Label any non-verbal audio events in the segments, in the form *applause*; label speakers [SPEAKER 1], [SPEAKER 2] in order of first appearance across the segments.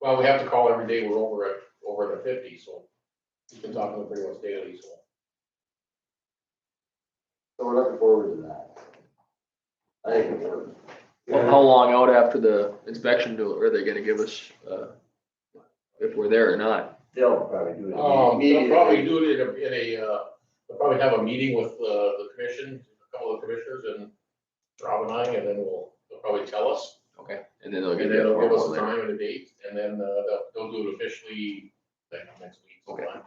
[SPEAKER 1] Well, we have to call every day, we're over at, over the fifty, so we've been talking to them pretty much daily, so.
[SPEAKER 2] So we're looking forward to that. I think it worked.
[SPEAKER 3] Well, How long out after the inspection do, are they gonna give us, uh, if we're there or not?
[SPEAKER 2] They'll probably do
[SPEAKER 1] Um,
[SPEAKER 2] it.
[SPEAKER 1] they'll
[SPEAKER 2] immediately.
[SPEAKER 1] probably do it in a, in a, uh, they'll probably have a meeting with, uh, the commission, a couple of commissioners and Rob and I, and then we'll, they'll probably tell us.
[SPEAKER 3] Okay. And then they'll
[SPEAKER 1] And
[SPEAKER 3] give
[SPEAKER 1] then
[SPEAKER 3] you a
[SPEAKER 1] they'll give us
[SPEAKER 3] formal
[SPEAKER 1] a time
[SPEAKER 3] letter.
[SPEAKER 1] and a date, and then, uh, they'll, they'll do it officially, like, next week.
[SPEAKER 3] Okay.
[SPEAKER 1] sometime.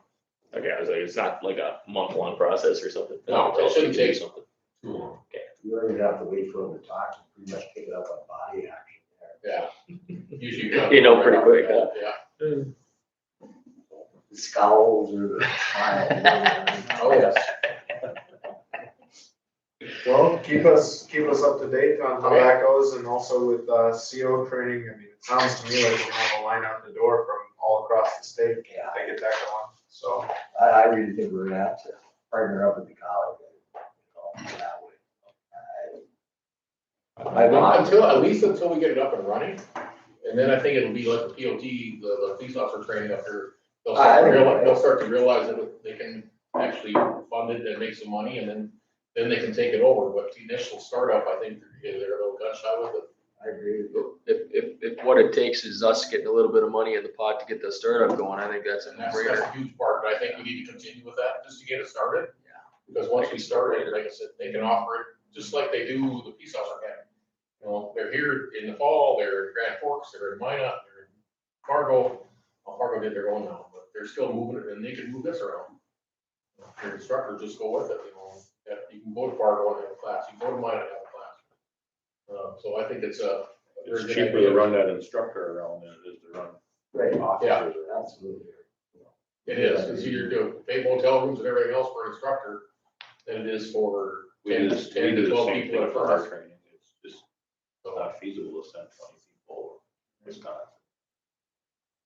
[SPEAKER 4] Okay, I was like, it's not like a month-long process or something.
[SPEAKER 1] No, it shouldn't take-
[SPEAKER 4] something.
[SPEAKER 2] You don't even have to wait for them to talk, you pretty much pick it up on body action there.
[SPEAKER 1] Yeah. Usually.
[SPEAKER 4] You know pretty quick, huh?
[SPEAKER 1] Yeah.
[SPEAKER 2] The Scowls or the smiles.
[SPEAKER 1] Oh, yes.
[SPEAKER 5] Well, keep us, keep us up to date on how
[SPEAKER 1] Okay.
[SPEAKER 5] that goes and also with, uh, CO training. I mean, it sounds to me like we'll have a line out the door from all across the state
[SPEAKER 2] Yeah,
[SPEAKER 5] if they get that going, so.
[SPEAKER 2] I, I really think we're gonna have to partner up with the college. and go that way. I- I-
[SPEAKER 1] Until, at least until we get it up and running, and then I think it'll be like the POT, the, the police officer training up here. They'll start
[SPEAKER 2] I- I
[SPEAKER 1] to
[SPEAKER 2] think
[SPEAKER 1] realize,
[SPEAKER 2] you're
[SPEAKER 1] they'll start to realize that they can actually fund it and make some money, and then, then they can take it over, but the initial startup, I think, they're they're a little gun shy with it.
[SPEAKER 2] I agree with you.
[SPEAKER 3] If, if, if what it takes is us getting a little bit of money in the pot to get the startup going, I think that's a
[SPEAKER 1] And that's, that's
[SPEAKER 3] no-brainer.
[SPEAKER 1] a huge part, but I think we need to continue with that, just to get it started.
[SPEAKER 3] Yeah.
[SPEAKER 1] Because once we start it, like I said, they can offer it, just like they do the police officer academy. You know, they're here in the fall, they're in Grand Forks, they're in Minot, they're in Fargo. Well, Fargo did their own now, but they're still moving it, and they can move this around. Your instructor, just go with it, you know, Yeah, you can go to Fargo and have a class, you can go to Minot and have a class. Uh, so I think it's a. very good
[SPEAKER 6] It's cheaper
[SPEAKER 1] idea.
[SPEAKER 6] to run that instructor around than it is to run
[SPEAKER 2] Right,
[SPEAKER 6] officers around.
[SPEAKER 2] absolutely.
[SPEAKER 1] It is, it's easier to pay motel rooms and everything else for an instructor than it is for
[SPEAKER 6] We
[SPEAKER 1] ten,
[SPEAKER 6] do, this- we
[SPEAKER 1] ten
[SPEAKER 6] do
[SPEAKER 1] to
[SPEAKER 6] the
[SPEAKER 1] twelve
[SPEAKER 6] same
[SPEAKER 1] people in
[SPEAKER 6] thing
[SPEAKER 1] a
[SPEAKER 6] for our
[SPEAKER 1] class.
[SPEAKER 6] training, it's just
[SPEAKER 1] So,
[SPEAKER 6] not feasible to send twenty people, it's not.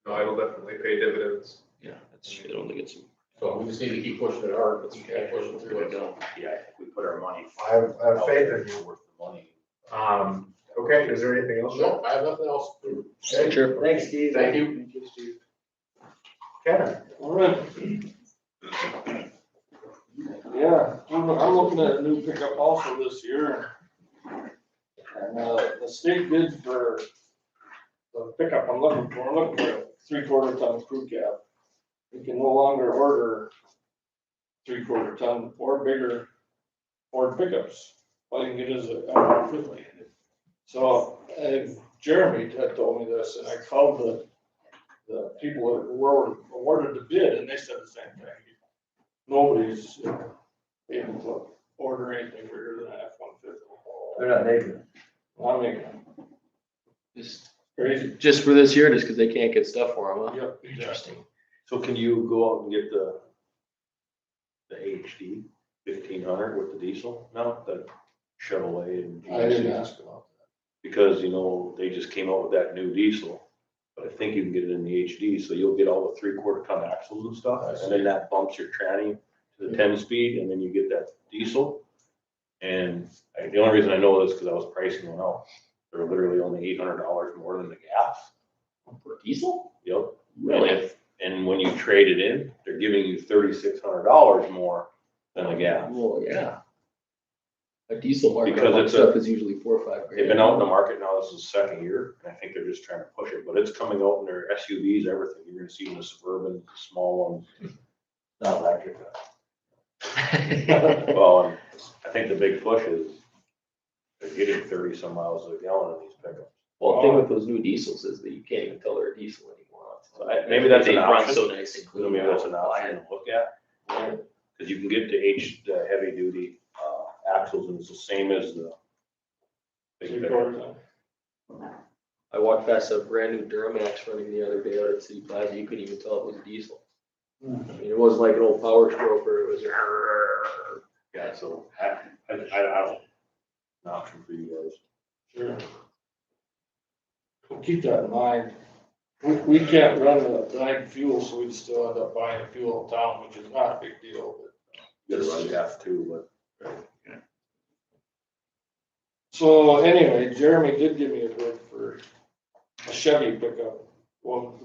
[SPEAKER 5] No, it'll definitely pay dividends.
[SPEAKER 4] Yeah, that's, it only gets.
[SPEAKER 1] so we just need to keep pushing it hard, but we can't push it through it, so.
[SPEAKER 6] Yeah, I think we put our money.
[SPEAKER 5] I have, I have faith in you.
[SPEAKER 6] Worth the money.
[SPEAKER 5] Um, okay, is there anything else?
[SPEAKER 1] No, I have nothing else. to-
[SPEAKER 3] Sure.
[SPEAKER 2] Thanks, Steve.
[SPEAKER 1] Thank you.
[SPEAKER 5] Kevin,
[SPEAKER 7] All right. Yeah, I'm, I'm looking at a new pickup also this year. And, uh, the state bid for the pickup I'm looking for, I'm looking for a three-quarter ton crew cab. We can no longer order three-quarter ton or bigger Ford pickups. All you can get is a F-150. So, and Jeremy had told me this, and I called the the people that were awarded the bid, and they said the same thing. Nobody's able to order anything bigger than F one fifty.
[SPEAKER 2] They're not making it.
[SPEAKER 7] I mean,
[SPEAKER 3] Just,
[SPEAKER 7] crazy.
[SPEAKER 3] just for this year, just because they can't get stuff for them, huh?
[SPEAKER 7] Yep.
[SPEAKER 3] Interesting.
[SPEAKER 6] So can you go out and get the, the HD fifteen hundred with the diesel now, the Chevrolet and.
[SPEAKER 7] I didn't
[SPEAKER 6] GMC?
[SPEAKER 7] ask about
[SPEAKER 6] Because, you know, they just came out with that new diesel, but I think you can get it in the HD, so you'll get all the three quarter ton axles and
[SPEAKER 1] I
[SPEAKER 6] stuff.
[SPEAKER 1] see.
[SPEAKER 6] And then that bumps your tranny to the ten speed and then you get that diesel. And I- the only reason I know this, because I was pricing one out, they're literally only eight hundred dollars more than the gas.
[SPEAKER 3] For diesel?
[SPEAKER 6] Yep. And
[SPEAKER 3] Really?
[SPEAKER 6] if, and when you trade it in, they're giving you thirty-six hundred dollars more than the gas.
[SPEAKER 3] Well, yeah. A diesel market
[SPEAKER 6] Because
[SPEAKER 3] on
[SPEAKER 6] it's a-
[SPEAKER 3] stuff is usually four or five
[SPEAKER 6] They've
[SPEAKER 3] grand.
[SPEAKER 6] been out in the market now, this is the second year, and I think they're just trying to push it, but it's coming out in their SUVs, everything. You're gonna see them in the Suburban, the small
[SPEAKER 2] Not electric.
[SPEAKER 3] *laughs*
[SPEAKER 6] ones. Well, and I think the big push is they're getting thirty some miles a gallon in these pickups.
[SPEAKER 3] Well, the thing with those new diesels is that you can't even tell they're a diesel anymore.
[SPEAKER 6] So I- maybe that's
[SPEAKER 4] They
[SPEAKER 6] an
[SPEAKER 4] run
[SPEAKER 6] option,
[SPEAKER 4] so nice and clean.
[SPEAKER 6] maybe that's an
[SPEAKER 4] now.
[SPEAKER 6] option to look at. Cause you can get the H, the heavy duty, uh, axles and it's the same as the.
[SPEAKER 7] it.
[SPEAKER 6] big pickup.
[SPEAKER 7] Three-quarter ton.
[SPEAKER 3] I walked past a brand new Duramax running the other day out at City Plaza, you couldn't even tell it was diesel. I mean, it wasn't like an old power stroke where it was.
[SPEAKER 6] Yeah, so I, I, I I don't, an option for you guys.
[SPEAKER 7] Sure. Well, Keep that in mind. We, we can't run the dying fuel, so we'd still end up buying fuel in town, which is not a big deal, but
[SPEAKER 6] You gotta run gas too, but.
[SPEAKER 7] So anyway, Jeremy did give me a bid for a Chevy pickup, one